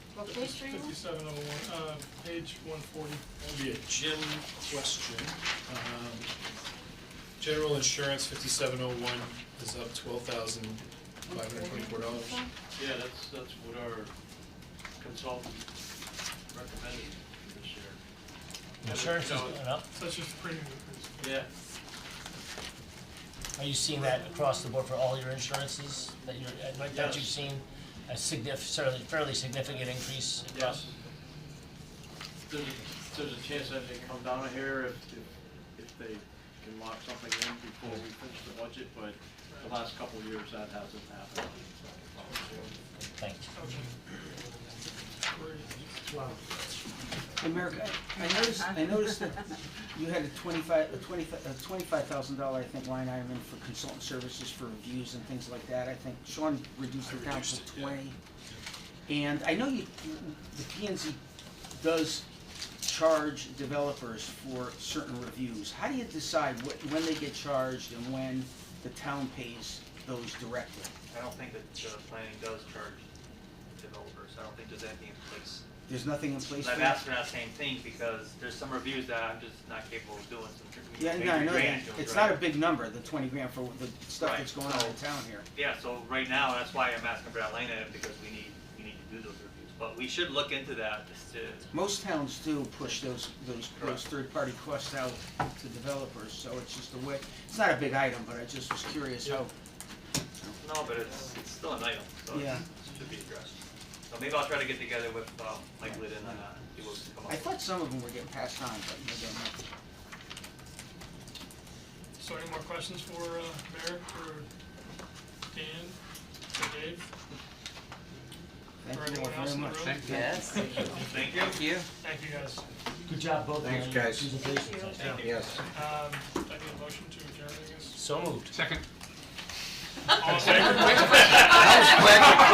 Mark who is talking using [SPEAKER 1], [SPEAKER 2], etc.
[SPEAKER 1] What page are you on?
[SPEAKER 2] Fifty-seven oh one, uh, page one forty.
[SPEAKER 3] That'll be a Jim question. Um, General insurance fifty-seven oh one is up twelve thousand five hundred twenty-four dollars.
[SPEAKER 4] Yeah, that's, that's what our consultant recommended this year.
[SPEAKER 5] Insurance is
[SPEAKER 4] So,
[SPEAKER 5] going up.
[SPEAKER 2] So that's just premium increase.
[SPEAKER 4] Yeah,
[SPEAKER 5] Are you seeing that across the board for all your insurances that you're, uh, like that you've
[SPEAKER 4] Yes.
[SPEAKER 5] seen? A signif, fairly, fairly significant increase
[SPEAKER 4] yes.
[SPEAKER 5] across?
[SPEAKER 4] There's, a- there's a chance that they come down here if, if- if they can lock something in before we finish the budget, but the last couple of years, that hasn't happened.
[SPEAKER 5] Thank you.
[SPEAKER 6] Hey, Merrick, I I noticed, I noticed that you had a twenty-five, a twenty-five, a twenty-five thousand dollar, I think, line item in for consultant services for reviews and things like that, I think Sean reduced
[SPEAKER 3] I
[SPEAKER 6] it down
[SPEAKER 3] reduced
[SPEAKER 6] to
[SPEAKER 3] it, yeah.
[SPEAKER 6] twenty. And I know you, the P and Z does charge developers for certain reviews, how do you decide what, when they get charged and when the town pays those directly?
[SPEAKER 7] I don't think that uh, planning does charge developers, I don't think there's anything in place.
[SPEAKER 6] There's nothing in place for
[SPEAKER 7] And I've
[SPEAKER 6] that?
[SPEAKER 7] asked for that same thing, because there's some reviews that I'm just not capable of doing, some
[SPEAKER 6] Yeah, no, I know that,
[SPEAKER 7] drainage
[SPEAKER 6] it's
[SPEAKER 7] jobs,
[SPEAKER 6] not a
[SPEAKER 7] right?
[SPEAKER 6] big number, the twenty grand for the stuff
[SPEAKER 7] Right, Oh.
[SPEAKER 6] that's going on in
[SPEAKER 7] so-
[SPEAKER 6] town here.
[SPEAKER 7] Yeah, so right now, that's why I'm asking for that line item, because we need, we need to do those reviews, but we should look into that, just to,
[SPEAKER 6] Most towns do push those, those, those
[SPEAKER 7] Correct.
[SPEAKER 6] third-party costs out to developers, so it's just a way, it's not a big item, but I just was curious how.
[SPEAKER 7] no, but it's, it's still an item, so
[SPEAKER 6] Yeah.
[SPEAKER 7] it should be addressed. So maybe I'll try to get together with, um, Mike Lydon and, uh, see what we can come up
[SPEAKER 6] I
[SPEAKER 7] with.
[SPEAKER 6] thought some of them were getting passed on, but maybe I'm not.
[SPEAKER 2] So any more questions for uh, Merrick or Dan or Dave? Or
[SPEAKER 6] Thank you
[SPEAKER 2] anyone
[SPEAKER 6] all
[SPEAKER 2] else
[SPEAKER 6] very
[SPEAKER 2] in the
[SPEAKER 6] much.
[SPEAKER 2] room?
[SPEAKER 8] Yes.
[SPEAKER 7] Thank you.
[SPEAKER 2] Thank you, guys.
[SPEAKER 5] Good job, both of you.
[SPEAKER 9] Thanks, guys.
[SPEAKER 5] Presentations.
[SPEAKER 7] Thank you.
[SPEAKER 9] Yes.
[SPEAKER 2] Um, I need a motion to adjourn, I guess.
[SPEAKER 5] So moved.
[SPEAKER 2] All in
[SPEAKER 9] I
[SPEAKER 2] favor?
[SPEAKER 9] was glad you